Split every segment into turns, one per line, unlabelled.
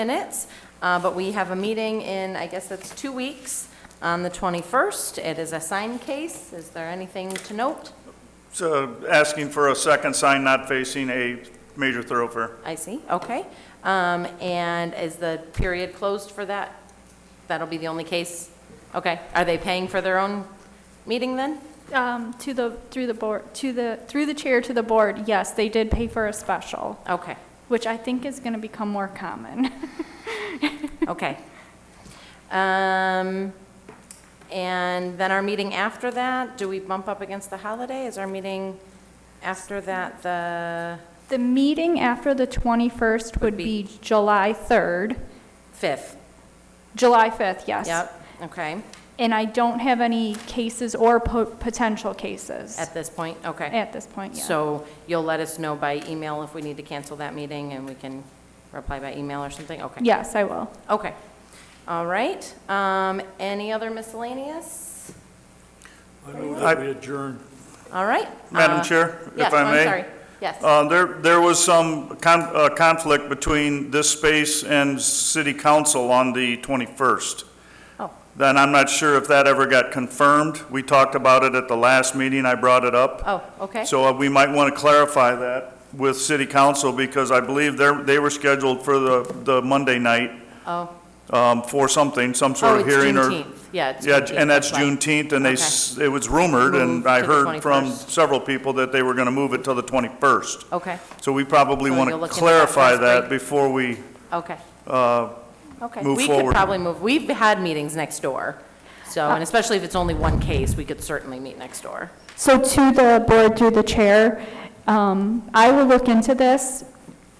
minutes, uh, but we have a meeting in, I guess that's two weeks, on the 21st. It is a sign case. Is there anything to note?
So asking for a second sign not facing a major thoroughfare.
I see, okay. Um, And is the period closed for that? That'll be the only case? Okay. Are they paying for their own meeting then?
Um, to the, through the board, to the, through the chair to the board, yes, they did pay for a special,
Okay,
which I think is gonna become more common.
okay. Um, And then our meeting after that, do we bump up against the holiday? Is our meeting after that the
The meeting after the 21st
Would
would
be-
be July 3rd,
5th?
July 5th, yes.
Yep, okay.
And I don't have any cases or po- potential cases
At this point, okay.
at this point, yeah.
So you'll let us know by email if we need to cancel that meeting, and we can reply by email or something? Okay.
Yes, I will.
Okay. All right. Um, Any other miscellaneous?
I move
I-
that we adjourn.
All right.
Madam
Uh,
Chair, if
yes,
I
I'm
may?
sorry. Yes.
Uh, There, there was some con- uh, conflict between this space and city council on the 21st.
Oh.
Then I'm not sure if that ever got confirmed. We talked about it at the last meeting, I brought it up.
Oh, okay.
So uh, we might want to clarify that with city council, because I believe they're, they were scheduled for the, the Monday night
Oh,
um, for something, some
oh,
sort of
it's
hearing or...
Juneteenth. Yeah, it's
Yeah,
Juneteenth,
and that's
right.
Juneteenth, and they, s- it was rumored,
Moved
and I
to the
heard from
21st.
several people that they were going to move it till the 21st.
Okay,
So we probably
So
want
you'll
to
look into that
clarify
first
that
break.
before we, uh,
okay. Okay.
move
We could
forward.
probably move, we've had meetings next door, so,
Uh,
and especially if it's only one case, we could certainly meet next door.
So to the board through the chair, um, I will look into this.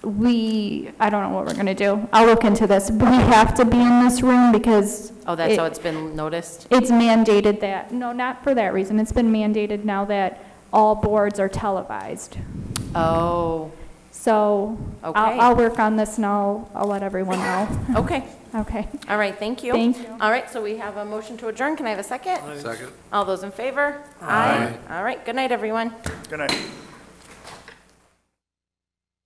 We, I don't know what we're gonna do. I'll look into this. We have to be in this room because.
Oh, that's how
it-
it's been noticed?
It's mandated that, no, not for that reason. It's been mandated now that all boards are televised.
Oh,
So
Okay.
I'll, I'll work on this and I'll, I'll let everyone know.
okay.
Okay.
All right, thank you.
Thank you.
All right, so we have a motion to adjourn. Can I have a second?
Second.
All those in favor? Aye. All right, good night, everyone.
can I?